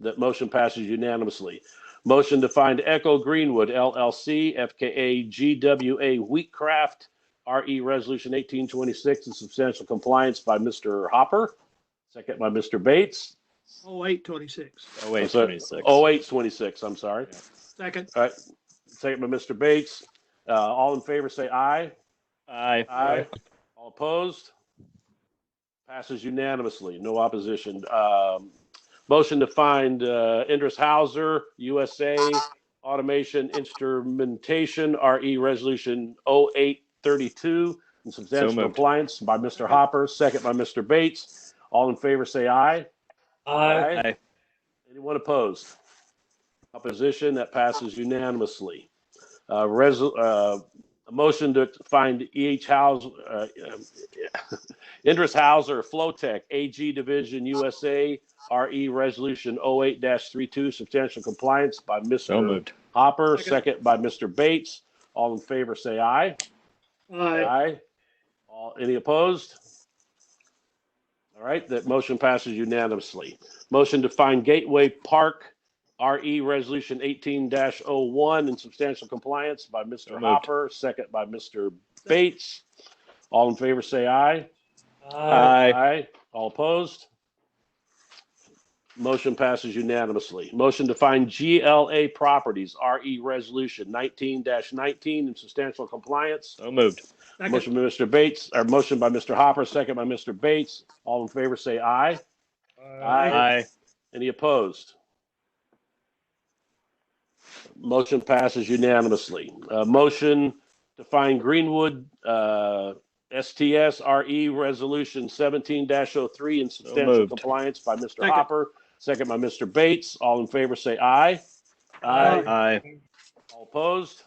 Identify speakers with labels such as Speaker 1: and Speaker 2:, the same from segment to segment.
Speaker 1: That motion passes unanimously. Motion to find Echo Greenwood LLC, FKA GWA Wheatcraft, RE Resolution 1826 in substantial compliance by Mr. Hopper, second by Mr. Bates.
Speaker 2: Oh, eight twenty-six.
Speaker 3: Oh, wait,
Speaker 1: So-
Speaker 3: 26.
Speaker 1: 0826, I'm sorry.
Speaker 2: Second,
Speaker 1: Second by Mr. Bates. Uh, All in favor, say aye.
Speaker 3: Aye.
Speaker 1: All opposed? Passes unanimously, no opposition. Um, Motion to find uh, Indris Hauser, USA Automation Instrumentation, RE Resolution 0832, in substantial
Speaker 3: moved.
Speaker 1: compliance by Mr. Hopper, second by Mr. Bates. All in favor, say aye. Aye.
Speaker 3: Aye.
Speaker 1: Anyone opposed? Opposition, that passes unanimously. Uh, resol, uh, a motion to find EH House, uh, um, Indris Hauser, Flowtech, AG Division USA, RE E Resolution 08-32, substantial compliance by
Speaker 3: So
Speaker 1: Mr.
Speaker 3: moved.
Speaker 1: Hopper,
Speaker 2: Second.
Speaker 1: second by Mr. Bates. All in favor, say aye.
Speaker 2: aye,
Speaker 1: All, any opposed? All right, that motion passes unanimously. Motion to find Gateway Park, RE Resolution eighteen oh one in substantial compliance by
Speaker 3: So
Speaker 1: Mr.
Speaker 3: moved.
Speaker 1: Hopper, second by Mr. Bates. All in favor, say aye.
Speaker 3: Aye.
Speaker 1: All opposed? Motion passes unanimously. Motion to find GLA Properties, RE Resolution nineteen nineteen in substantial compliance
Speaker 3: So moved.
Speaker 2: second,
Speaker 1: Motion by Mr. Bates, or motion by Mr. Hopper, second by Mr. Bates. All in favor, say aye. Aye.
Speaker 3: Aye.
Speaker 1: Any opposed? Motion passes unanimously. Uh, motion to find Greenwood, uh, STS RE E Resolution seventeen 3 in substantial
Speaker 3: moved.
Speaker 1: compliance by Mr.
Speaker 2: Second.
Speaker 1: Hopper, second by Mr. Bates. All in favor, say aye.
Speaker 2: Aye.
Speaker 3: Aye.
Speaker 1: All opposed?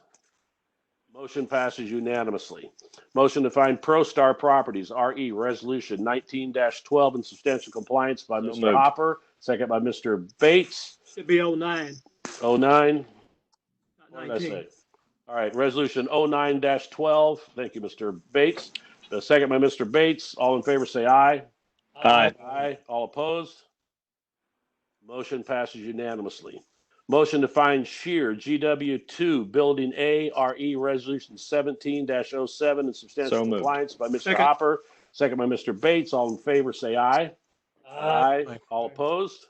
Speaker 1: Motion passes unanimously. Motion to find ProStar Properties, RE Resolution 19-12 in substantial compliance by
Speaker 3: So
Speaker 1: Mr.
Speaker 3: moved.
Speaker 1: Hopper, second by Mr. Bates,
Speaker 2: should be oh nine,
Speaker 1: 09.
Speaker 2: not
Speaker 1: What did I
Speaker 2: nineteen.
Speaker 1: say? All right, Resolution 09-12. Thank you, Mr. Bates. The second by Mr. Bates. All in favor, say aye.
Speaker 3: Aye.
Speaker 1: Aye. All opposed? Motion passes unanimously. Motion to find Shear, GW two, Building A, RE Resolution seventeen 7 in substantial
Speaker 3: So moved.
Speaker 1: compliance by Mr.
Speaker 2: Second.
Speaker 1: Hopper, second by Mr. Bates. All in favor, say aye. Aye. All opposed?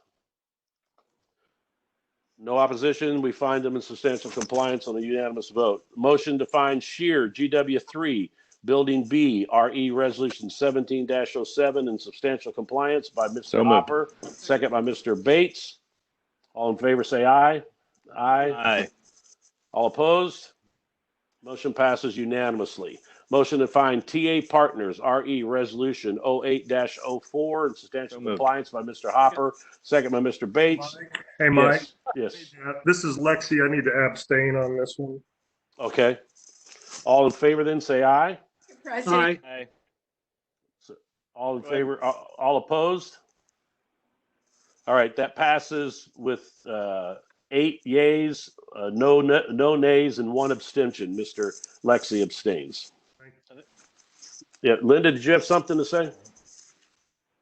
Speaker 1: No opposition. We find them in substantial compliance on a unanimous vote. Motion to find Shear, GW three, Building B, RE Resolution seventeen 7 in substantial compliance by
Speaker 3: So
Speaker 1: Mr.
Speaker 3: moved.
Speaker 1: Hopper, second by Mr. Bates. All in favor, say aye. Aye.
Speaker 3: Aye.
Speaker 1: All opposed? Motion passes unanimously. Motion to find TA Partners, RE Resolution 08-04 in substantial
Speaker 3: So moved.
Speaker 1: compliance by Mr. Hopper, second by Mr. Bates.
Speaker 4: Mike? Hey, Mike,
Speaker 1: Yes, Yes,
Speaker 4: Uh, this is Lexi. I need to abstain on this one.
Speaker 1: okay. All in favor then, say aye.
Speaker 5: Mr. President,
Speaker 2: Aye,
Speaker 3: Aye.
Speaker 1: All in
Speaker 3: Go ahead.
Speaker 1: favor, all all opposed? All right, that passes with uh, eight yays, uh, no, na- no nays, and one abstention. Mr. Lexi abstains. Yeah, Linda, did you have something to say?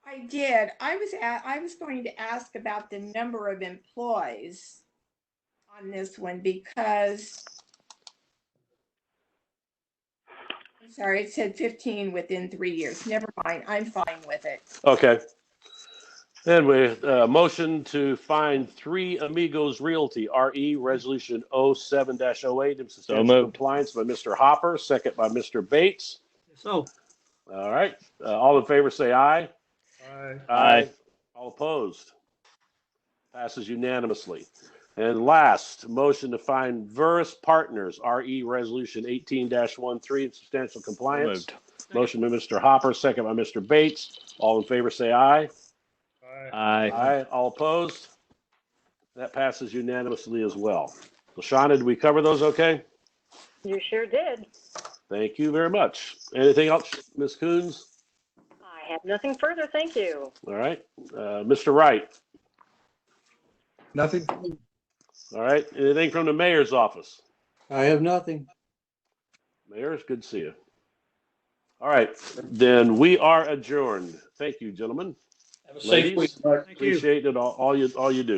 Speaker 5: I did. I was, a- I was going to ask about the number of employees on this one because I'm sorry, it said 15 within three years. Never mind. I'm fine with it.
Speaker 1: Okay. Then we, uh, motion to find Three Amigos Realty, RE Resolution 07-08 in substantial
Speaker 3: moved.
Speaker 1: compliance by Mr. Hopper, second by Mr. Bates.
Speaker 2: so,
Speaker 1: All right, uh, all in favor, say aye.
Speaker 4: Aye.
Speaker 3: Aye.
Speaker 1: All opposed? Passes unanimously. And last, motion to find Verus Partners, RE Resolution 18-13 in substantial
Speaker 3: So
Speaker 1: compliance.
Speaker 3: moved.
Speaker 1: Motion by Mr. Hopper, second by Mr. Bates. All in favor, say aye.
Speaker 4: Aye.
Speaker 3: Aye.
Speaker 1: Aye. All opposed? That passes unanimously as well. LaShawna, did we cover those okay?
Speaker 6: You sure did.
Speaker 1: Thank you very much. Anything else, Ms. Coons?
Speaker 6: I have nothing further, thank you.
Speaker 1: All right. Uh, Mr. Wright?
Speaker 7: Nothing.
Speaker 1: All right. Anything from the mayor's office?
Speaker 7: I have nothing.
Speaker 1: Mayor, it's good to see you. All right, then we are adjourned. Thank you, gentlemen.
Speaker 7: Have a
Speaker 1: safe Ladies? week.
Speaker 4: Aye.
Speaker 2: thank you.
Speaker 1: Appreciate it, all, all you, all you do.